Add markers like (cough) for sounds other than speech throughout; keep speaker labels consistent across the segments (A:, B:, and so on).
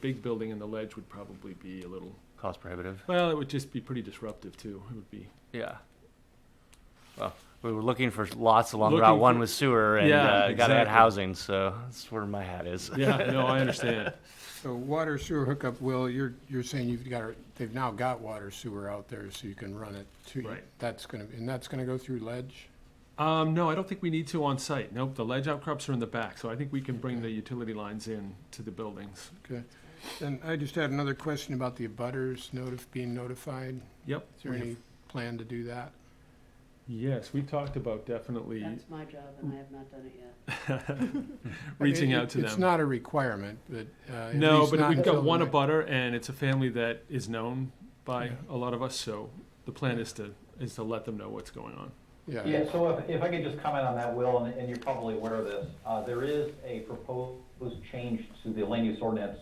A: big building and the ledge would probably be a little,
B: cost prohibitive.
A: well, it would just be pretty disruptive too. It would be,
B: Yeah. Well, we were looking for lots along
A: Looking
B: Route One
A: for-
B: with sewer, and
A: Yeah,
B: uh, gotta add
A: exactly.
B: housing, so that's where my hat is.
A: yeah, no, I understand.
C: So water sewer hookup, Will, you're, you're saying you've got, they've now got water sewer out there, so you can run it to.
A: Right.
C: That's gonna, and that's gonna go through ledge?
A: Um, no, I don't think we need to on site. Nope, the ledge outcrops are in the back, so I think we can bring the utility lines in to the buildings.
C: Okay. And I just had another question about the abutters notif, being notified.
A: Yep.
C: Is there any plan to do that?
A: Yes, we talked about definitely
D: That's my job, and I have not done it yet.
A: reaching
C: It-
A: out to
C: It's
A: them.
C: not a requirement, but, uh. at
A: No,
C: least
A: but
C: not
A: we've
C: until
A: got one
C: the-
A: abutter and it's a family that is known by
C: Yeah.
A: a lot of us, so the plan
C: Yeah.
A: is to, is to let them know what's going on.
C: Yeah,
E: Yeah, so if, if I could just comment on that, Will, and, and you're probably aware of this, uh, there is a proposed change to the land use ordinance,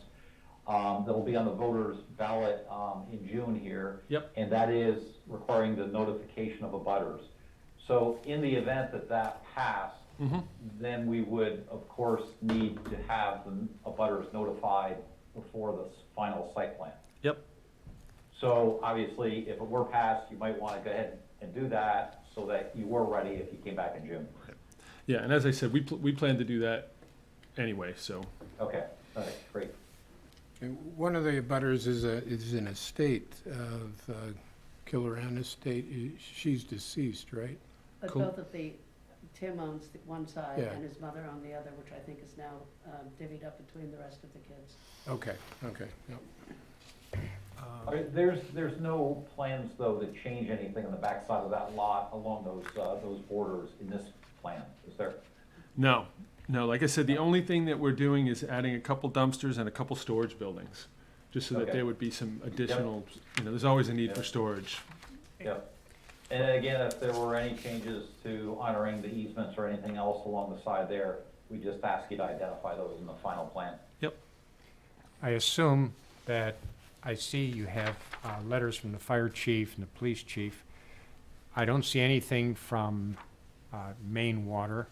E: um, that will be on the voters ballot, um, in June here.
A: Yep.
E: And that is requiring the notification of abutters. So in the event that that passed, then we would, of course, need to have the abutters notified before the s- final site plan.
A: Yep.
E: So obviously, if it were passed, you might want to go ahead and do that so that you were ready if you came back in June.
A: Yeah, and as I said, we, pl- we plan to do that anyway, so.
E: Okay, all right, great.
C: And one of the abutters is a, is an estate of, uh, Killer Ann Estate, I- she's deceased, right?
D: But
A: Cool.
D: both of the, Tim owns the one side
C: Yeah.
D: and his mother on the other, which I think is now um, divvied up between the rest of the kids.
C: Okay, okay, yep.
E: All right, There's, there's no plans, though, to change anything on the backside of that lot along those, uh, those borders in this plan, is there?
A: No, no, like I said, the only thing that we're doing is adding a couple dumpsters and a couple storage buildings. Just so that
E: Okay.
A: there would be some additional, you know, there's always a need for
E: Yep.
A: storage.
E: Yep. And then again, if there were any changes to honoring the easements or anything else along the side there, we just ask you to identify those in the final plan.
F: I assume that, I see you have uh, letters from the fire chief and the police chief. I don't see anything from uh, main water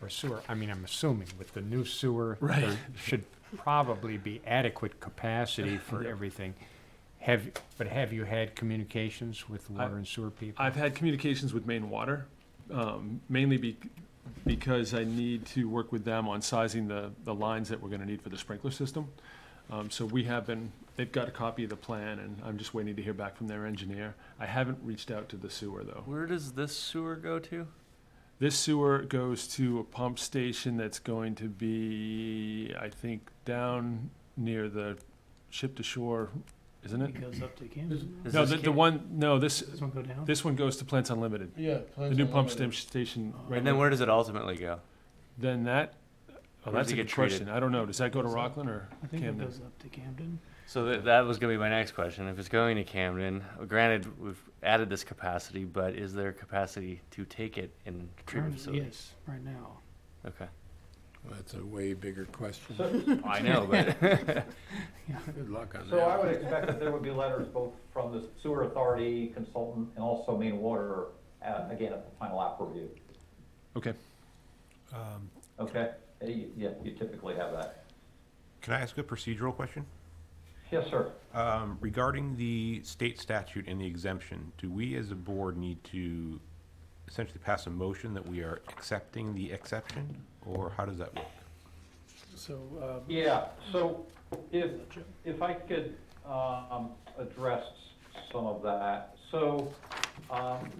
F: or sewer. I mean, I'm assuming with the new sewer, there
A: Right.
F: should probably be adequate capacity for
A: Yep.
F: everything. Have, but have you had communications with water and sewer people?
A: I've had communications with Maine Water, um, mainly be, because I need to work with them on sizing the, the lines that we're gonna need for the sprinkler system. Um, so we have been, they've got a copy of the plan, and I'm just waiting to hear back from their engineer. I haven't reached out to the sewer, though.
B: Where does this sewer go to?
A: This sewer goes to a pump station that's going to be, I think, down near the ship to shore, isn't it?
G: goes up to Camden.
B: Does
A: No,
B: this
A: the,
B: ca-
A: the one, no, this,
G: Does one go down?
A: this one goes to Plants Unlimited.
C: Yeah.
A: The new pump stem- station, right?
B: Uh, And then
A: now.
B: where does it ultimately go?
A: Then that, oh,
B: Where does
A: that's
B: it
A: a
B: get
A: good
B: treated?
A: question. I don't know. Does that go to Rockland or
G: I think it
A: Camden?
G: goes up to Camden.
B: So that, that was gonna be my next question. If it's going to Camden, uh, granted, we've added this capacity, but is there capacity to take it in treatment
A: Um,
G: Currently,
B: facilities?
G: Yes, right now. (laughs)
B: Okay.
C: That's a way bigger question.
B: I know, but
C: Good luck on that.
E: So I would expect that there would be letters both from the sewer authority consultant and also main water, uh, again, at the final app review.
A: Okay.
E: Okay, Uh, you- yeah, you typically have that.
H: Can I ask a procedural question?
E: Yes, sir.
H: Um, Regarding the state statute and the exemption, do we as a board need to essentially pass a motion that we are accepting the exception? Or how does that work?
G: So, uh,
E: Yeah, so if, if I could, um, address some of that. So, um,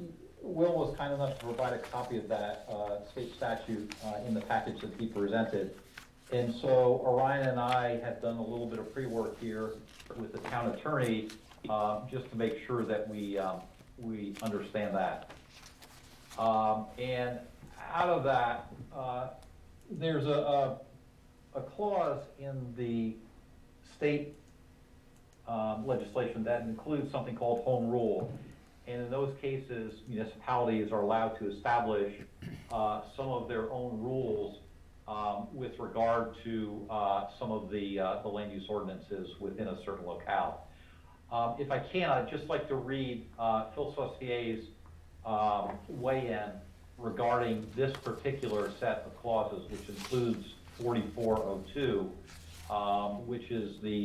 E: Will was kind enough to provide a copy of that, uh, state statute, uh, in the package that he presented. And so Orion and I have done a little bit of pre-work here with the town attorney, uh, just to make sure that we, um, we understand that. Um, and out of that, uh, there's a, a, a clause in the state, um, legislation that includes something called home rule. And in those cases, municipalities are allowed to establish, uh, some of their own rules, um, with regard to, uh, some of the, uh, the land use ordinances within a certain locale. Um, If I can, I'd just like to read uh, Phil Saussier's um, weigh-in regarding this particular set of clauses, which includes 4402, um, which is the